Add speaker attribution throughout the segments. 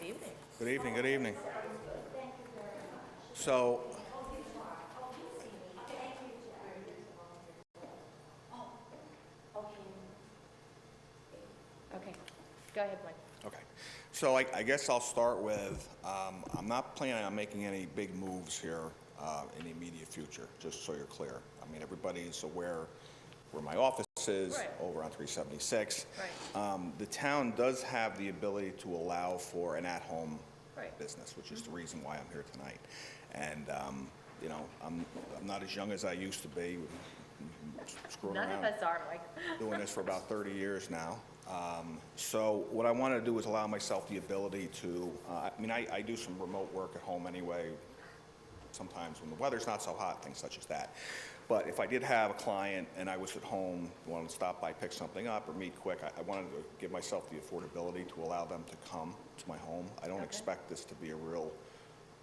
Speaker 1: Good evening, good evening. So.
Speaker 2: Okay, go ahead, Mike.
Speaker 1: Okay. So I, I guess I'll start with, um, I'm not planning on making any big moves here, uh, in the immediate future, just so you're clear. I mean, everybody's aware where my office is,
Speaker 2: Right.
Speaker 1: over on three seventy-six.
Speaker 2: Right.
Speaker 1: Um, the town does have the ability to allow for an at-home
Speaker 2: Right. Mm-hmm.
Speaker 1: business, which is the reason why I'm here tonight. And, um, you know, I'm, I'm not as young as I used to be, screwing around
Speaker 2: None of us are, Mike.
Speaker 1: doing this for about 30 years now. Um, So what I want to do is allow myself the ability to, uh, I mean, I I do some remote work at home anyway, sometimes when the weather's not so hot, things such as that. But if I did have a client and I was at home, wanted to stop by, pick something up, or meet quick, I- I wanted to give myself the affordability to allow them to come to my home. I don't expect this to be a real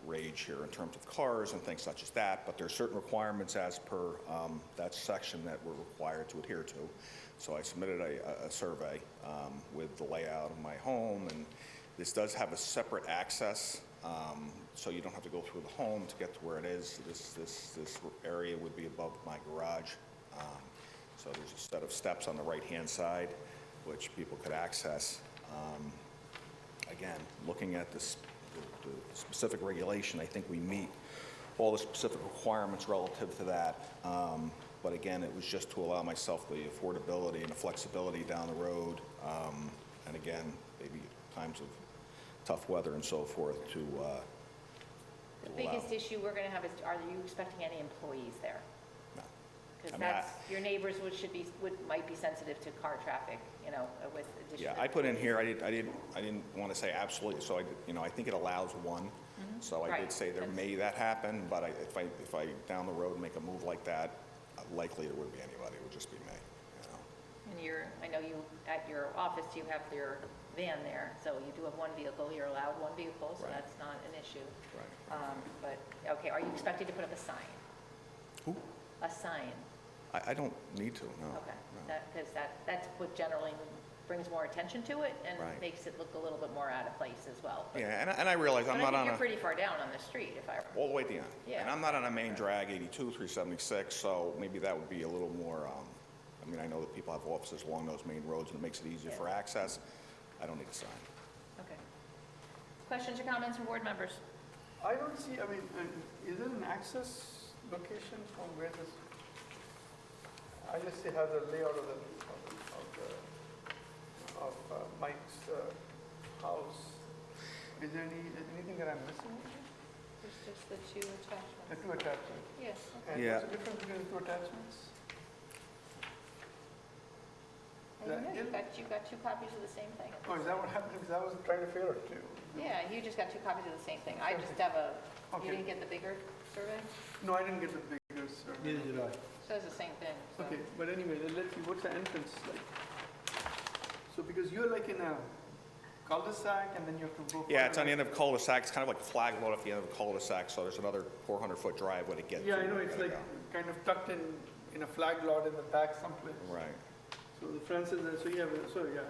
Speaker 1: rage here in terms of cars and things such as that, but there are certain requirements as per um, that section that we're required to adhere to. So I submitted a, a- a survey um, with the layout of my home, and this does have a separate access, um, so you don't have to go through the home to get to where it is. This, this, this area would be above my garage. Um, So there's a set of steps on the right-hand side, which people could access. Um, again, looking at this, the- the specific regulation, I think we meet all the specific requirements relative to that. Um, But again, it was just to allow myself the affordability and the flexibility down the road. um, And again, maybe times of tough weather and so forth to uh,
Speaker 2: The
Speaker 1: allow.
Speaker 2: biggest issue we're going to have is, are you expecting any employees there?
Speaker 1: No. I
Speaker 2: Because
Speaker 1: mean, I-
Speaker 2: that's, your neighbors would, should be, would, might be sensitive to car traffic, you know, with additional.
Speaker 1: Yeah, I put in here, I didn't, I didn't, I didn't want to say absolutely, so I, did- you know, I think it allows one. So I did
Speaker 2: Mm-hmm. Right.
Speaker 1: say there may that happen, but I, if I, if I down the road make a move like that, likely it wouldn't be anybody, it would just be me, you know?
Speaker 2: And you're, I know you, at your office, you have your van there, so you do have one vehicle, you're allowed one vehicle, so
Speaker 1: Right.
Speaker 2: that's not an issue.
Speaker 1: Right.
Speaker 2: Um, But, okay, are you expected to put up a sign?
Speaker 1: Who?
Speaker 2: A sign,
Speaker 1: I, I don't need to, no.
Speaker 2: okay.
Speaker 1: no.
Speaker 2: Because that, that's what generally brings more attention to it and
Speaker 1: Right.
Speaker 2: makes it look a little bit more out of place as well. but-
Speaker 1: Yeah, and I, and I realize
Speaker 2: But I
Speaker 1: I'm not
Speaker 2: think
Speaker 1: on
Speaker 2: you're
Speaker 1: a,
Speaker 2: pretty far down on the street, if I,
Speaker 1: all the way down. And
Speaker 2: Yeah.
Speaker 1: I'm not on a main drag, 82, 376, so maybe that would be a little more, um, I mean, I know that people have offices along those main roads and it makes it easier for
Speaker 2: Yeah.
Speaker 1: access. I don't need a sign.
Speaker 2: okay. Questions or comments from board members?
Speaker 3: I don't see, I mean, uh, is it an access location from where this? I just see how the layout of the, of- of the, of uh, Mike's uh, house. Is there any, is anything that I'm missing?
Speaker 2: There's just the two
Speaker 3: The
Speaker 2: attachments.
Speaker 3: two attachments.
Speaker 2: Yes.
Speaker 3: And
Speaker 1: Yeah.
Speaker 3: what's the difference between the two attachments?
Speaker 2: I don't know,
Speaker 3: That
Speaker 2: you
Speaker 3: is-
Speaker 2: got, you got two copies of the same thing.
Speaker 3: Oh, is that what happened? Because I was trying to figure it too.
Speaker 2: Yeah, you just got two copies of the same thing. I just
Speaker 3: Okay.
Speaker 2: have a, you
Speaker 3: Okay.
Speaker 2: didn't get the bigger survey?
Speaker 3: No, I didn't get the bigger survey.
Speaker 4: Neither did I.
Speaker 2: Says the same thing, so.
Speaker 3: Okay, but anyway, then let's see, what's the entrance like? So because you're like in a cul-de-sac and then you have to go.
Speaker 1: Yeah, it's on the end
Speaker 3: further.
Speaker 1: of a cul-de-sac, it's kind of like a flag lot at the end of a cul-de-sac, so there's another 400-foot driveway to get to.
Speaker 3: Yeah, I
Speaker 1: where
Speaker 3: know,
Speaker 1: we're
Speaker 3: it's
Speaker 1: gonna
Speaker 3: like kind of tucked in, in a flag lot in the back someplace.
Speaker 1: go. Right.
Speaker 3: So the fence is there, so you have, so yeah,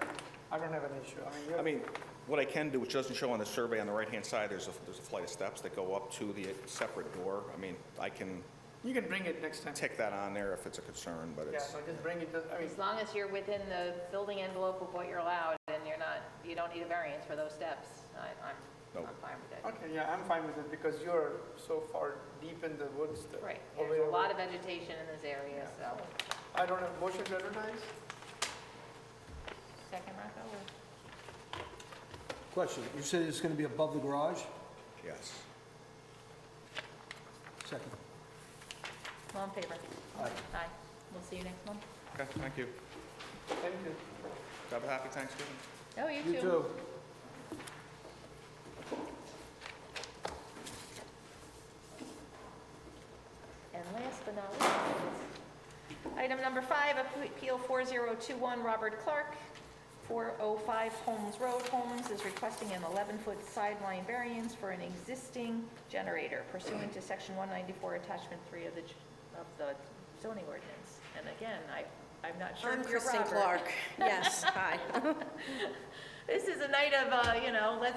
Speaker 3: I don't have an issue. I mean, you
Speaker 1: I
Speaker 3: have-
Speaker 1: mean, what I can do, which doesn't show on the survey, on the right-hand side, there's a, there's a flight of steps that go up to the separate door. I mean, I can
Speaker 3: you can bring it next time.
Speaker 1: tick that on there if it's a concern, but
Speaker 3: Yeah,
Speaker 1: it's,
Speaker 3: no, just bring it, just, I mean,
Speaker 2: As long as you're within the building envelope of what you're allowed and you're not, you don't need a variance for those steps, I, I'm,
Speaker 1: Nope.
Speaker 2: I'm fine with it.
Speaker 3: okay, yeah, I'm fine with it because you're so far deep in the woods. that-
Speaker 2: Right,
Speaker 3: all the
Speaker 2: there's
Speaker 3: way
Speaker 2: a lot
Speaker 3: over.
Speaker 2: of vegetation in this area, so.
Speaker 3: I don't have, motion to advertise?
Speaker 2: Second, Rocco, or?
Speaker 4: Question, you said it's going to be above the garage?
Speaker 1: yes.
Speaker 4: Second.
Speaker 2: All in favor?
Speaker 4: Aye.
Speaker 2: Aye. We'll see you next month.
Speaker 1: Okay, thank you.
Speaker 3: Thank you.
Speaker 1: Have a happy Thanksgiving.
Speaker 2: Oh, you
Speaker 4: You too.
Speaker 2: And last but not least, item number five, Appeal 4021, Robert Clark, 405 Holmes Road. Holmes is requesting an 11-foot sideline variance for an existing generator pursuant to Section 194, Attachment 3 of the, j- of the zoning ordinance. And again, I, I'm not sure
Speaker 5: I'm
Speaker 2: if you're
Speaker 5: Kristen
Speaker 2: Robert.
Speaker 5: Clark. Yes, hi.
Speaker 2: This is a night of, uh, you know, let's